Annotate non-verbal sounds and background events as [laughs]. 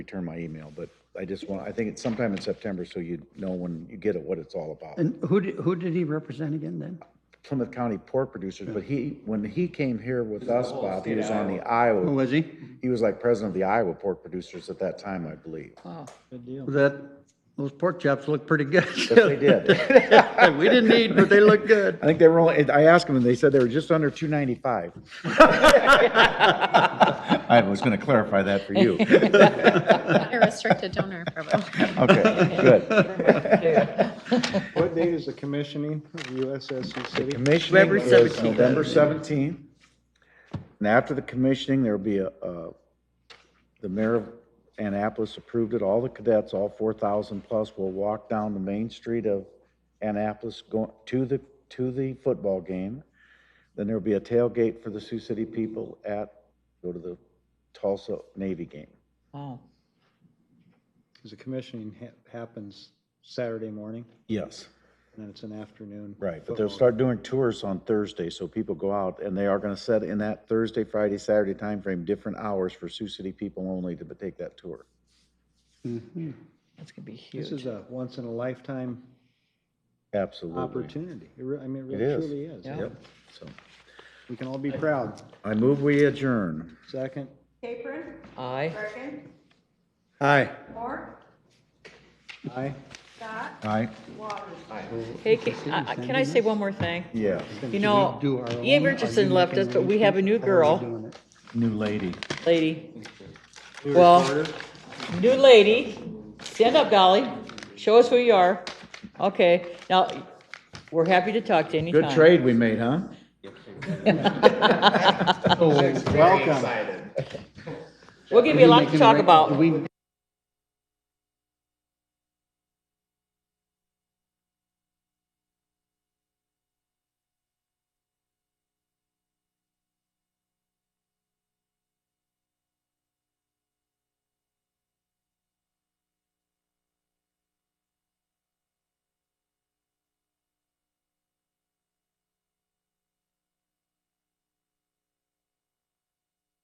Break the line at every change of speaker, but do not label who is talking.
return my email, but I just want, I think it's sometime in September, so you know when you get it, what it's all about.
And who did, who did he represent again then?
Plymouth County pork producers, but he, when he came here with us, Bob, he was on the
Who
Iowa,
was he?
he was like president of the Iowa pork producers at that time, I believe.
That, those pork chops look pretty good.
But they did.
[laughs] We didn't eat, but they look good.
[laughs] I think they were only, I asked them and they said they were just under two ninety-five. [laughs] I was gonna clarify that for you.
A restricted donor program.
Okay, good.
What date is the commissioning of USSU City?
Commissioning
November
is
17th.
November seventeenth. And after the commissioning, there'll be a, uh, the mayor of Annapolis approved it, all the cadets, all four thousand plus will walk down the main street of Annapolis going to the, to the football game. Then there'll be a tailgate for the Sioux City people at, go to the Tulsa Navy game.
Wow.
Because the commissioning ha- happens Saturday morning,
Yes.
and then it's an afternoon.
Right, but they'll
football.
start doing tours on Thursday, so people go out, and they are gonna set in that Thursday, Friday, Saturday timeframe, different hours for Sioux City people only to take that tour.
That's gonna be
This is
huge.
a once-in-a-lifetime
Absolutely.
opportunity. It re- I mean, it
It
really
is.
truly is.
Yeah.
Yep, so,
We can all be proud.
I move we adjourn.
Second?
Capron,
Aye.
Merkin,
Hi.
Moore,
Aye.
Scott,
Aye?
Waters.
Hey, can I- can I say one more thing?
Yeah,
You know,
do our own,
Ian
or
Richardson
you
left
can
us, but we
repeat
have a new
how we're
girl.
doing it.
new lady.
lady. Well, new lady, stand up, Dolly. Show us who you are. Okay, now, we're happy to talk to you anytime.
Good trade we made, huh? Oh,
Welcome.
We'll give you a lot to
Making
talk
rec-
about.
do we-